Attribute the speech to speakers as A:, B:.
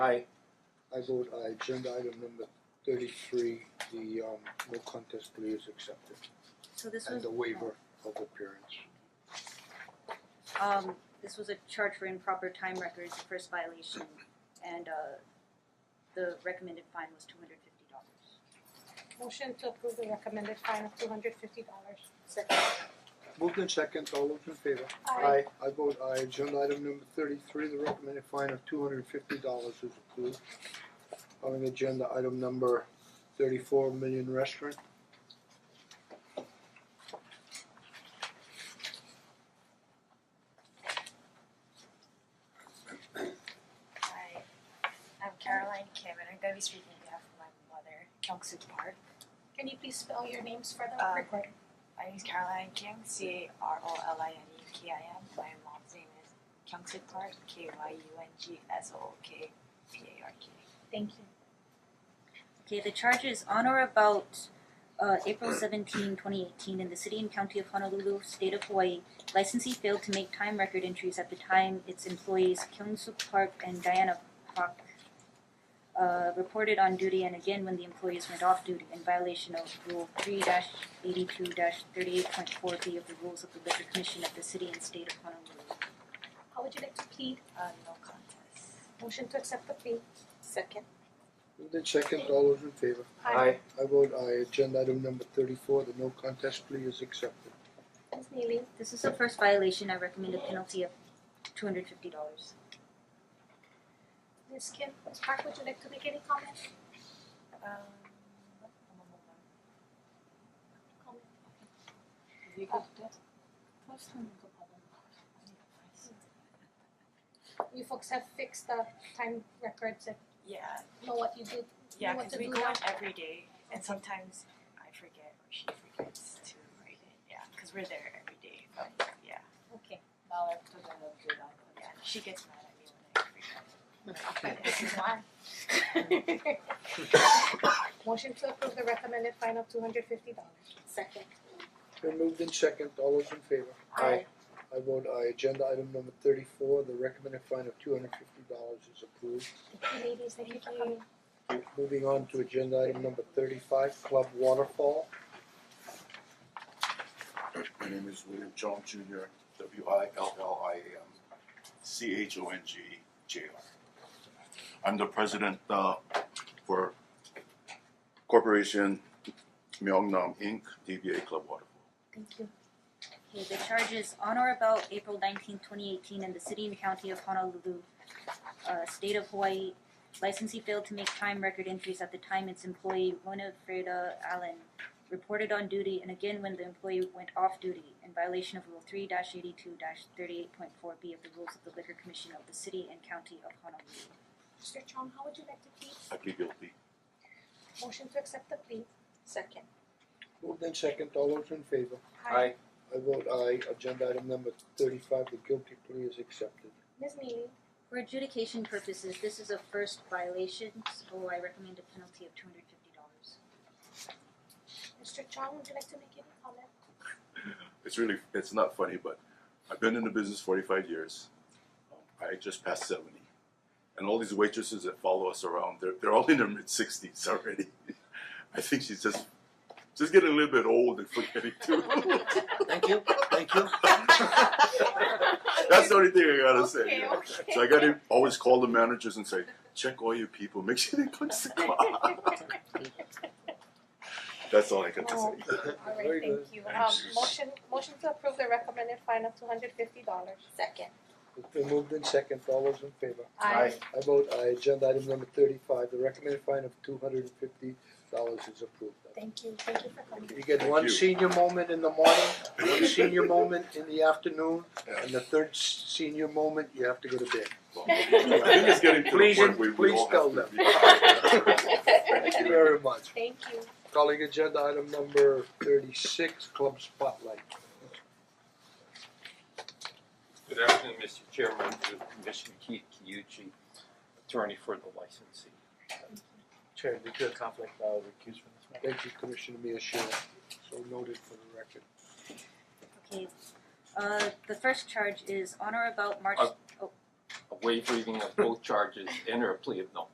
A: Aye.
B: I vote aye, agenda item number thirty-three, the um no contest plea is accepted
C: So this
B: and
C: was,
B: the waiver of appearance.
C: um, this was a charge for improper time records, the first violation, and, uh, the recommended fine was two hundred fifty dollars.
D: Motion to approve the recommended fine of two hundred fifty dollars.
C: Second.
B: Moved in second, all those in favor?
D: Uh,
A: Aye.
B: I vote aye, agenda item number thirty-three, the recommended fine of two hundred and fifty dollars is approved. Calling agenda item number thirty-four, Million Restaurant.
E: Hi, I'm Caroline Kim, and I'm going to be speaking on behalf of my mother, Kyungsoo Park.
D: Can you please spell your names for the
E: Um,
D: record?
E: My name is Caroline Kim, C A R O L I N E K I M. My mom's name is Kyungsoo Park, K Y U N G S O O K P A R K.
D: Thank you.
C: Okay, the charges on or about uh, April 17, 2018, in the city and county of Honolulu, state of Hawaii, licensee failed to make time record entries at the time its employees Kyung Soo Park and Diana Park uh, reported on duty and again when the employees went off duty in violation of Rule 3 82 38.4B of the Rules of the Liquor Commission of the city and state of Honolulu.
D: How would you like to plead?
E: Uh, no contest.
D: Motion to accept the plea. Second.
B: Moved in second, all those in favor?
A: Aye.
B: I vote aye, agenda item number thirty-four, the no contest plea is accepted.
D: Ms. Neely,
C: This is the first violation. I recommend a penalty of $250.
D: Ms. Kim, Ms. Park, would you like to make any comment?
E: Um, I'm a woman.
D: Comment.
E: You got that? First time you got that one. I need a price.
D: You folks have fixed the time records and
E: Yeah,
D: know what you do.
E: yeah,
D: What
E: because
D: to
E: we
D: do
E: go
D: now?
E: on every day, and sometimes I forget or she forgets to write it. Yeah, because we're there every day. But yeah.
D: Okay.
E: Now I have to go and do that. Yeah, she gets mad at me when I forget. But this is why.
D: Motion to approve the recommended fine of two hundred fifty dollars.
E: Second.
B: Then moved in second, all those in favor?
A: Aye.
B: I vote aye, agenda item number thirty-four, the recommended fine of two hundred fifty dollars is approved.
D: Thank you ladies, thank you for coming.
B: Moving on to agenda item number thirty-five, Club Waterfall.
F: My name is William Jones Junior, W I L L I A M, C H O N G E J R. I'm the president uh for Corporation Myeongnam Inc., DBA Club Waterfall.
D: Thank you.
C: Okay, the charges on or about April 19, 2018, in the city and county of Honolulu, uh, state of Hawaii, licensee failed to make time record entries at the time its employee Winifreda Allen reported on duty and again when the employee went off duty in violation of Rule 3 82 38.4B of the Rules of the Liquor Commission of the city and county of Honolulu.
D: Mr. Chong, how would you like to plead?
F: I plead guilty.
D: Motion to accept the plea. Second.
B: Moved in second, all those in favor?
A: Aye.
B: I vote aye, agenda item number thirty-five, the guilty plea is accepted.
D: Ms. Neely,
C: For adjudication purposes, this is a first violation, so I recommend a penalty of $250.
D: Mr. Chong, would you like to make any comment?
F: It's really, it's not funny, but I've been in the business forty-five years. Um, I just passed seventy. And all these waitresses that follow us around, they're they're all in their mid-sixties already. I think she's just, just getting a little bit old and forgetting too.
A: Thank you, thank you.
F: That's the only thing I gotta say.
D: Okay,
F: yeah.
D: okay.
F: So I gotta always call the managers and say, check all your people, make sure they punch the clock. That's all I got to
D: Oh,
F: say.
B: Very
D: Alright,
B: good.
D: thank you. Um, motion, motion to approve the recommended fine of two hundred fifty dollars. Second.
B: It's been moved in second, all those in favor?
D: Aye.
B: I vote aye, agenda item number thirty-five, the recommended fine of two hundred and fifty dollars is approved.
D: Thank you, thank you for coming.
B: You get
F: Thank
B: one
F: you.
B: senior moment in the morning, one senior moment in the afternoon,
F: Yeah.
B: and the third s- senior moment, you have to go to bed.
F: I think it's getting to the
B: Please-
F: point where we
B: please
F: all
B: tell
F: have to be.
B: Thank you very much.
D: Thank you.
B: Calling agenda item number thirty-six, Club Spotlight.
G: Good afternoon, Mr. Chairman, Commissioner Keith Kiyuchi, attorney for the licensee.
A: Chair, due to a conflict, I'll recuse from this matter.
B: Thank you, Commissioner Miyashiro, so noted for the record.
C: Okay, uh, the first charge is on or about March,
G: Uh,
C: oh,
G: a waiving of both charges and or a plea of no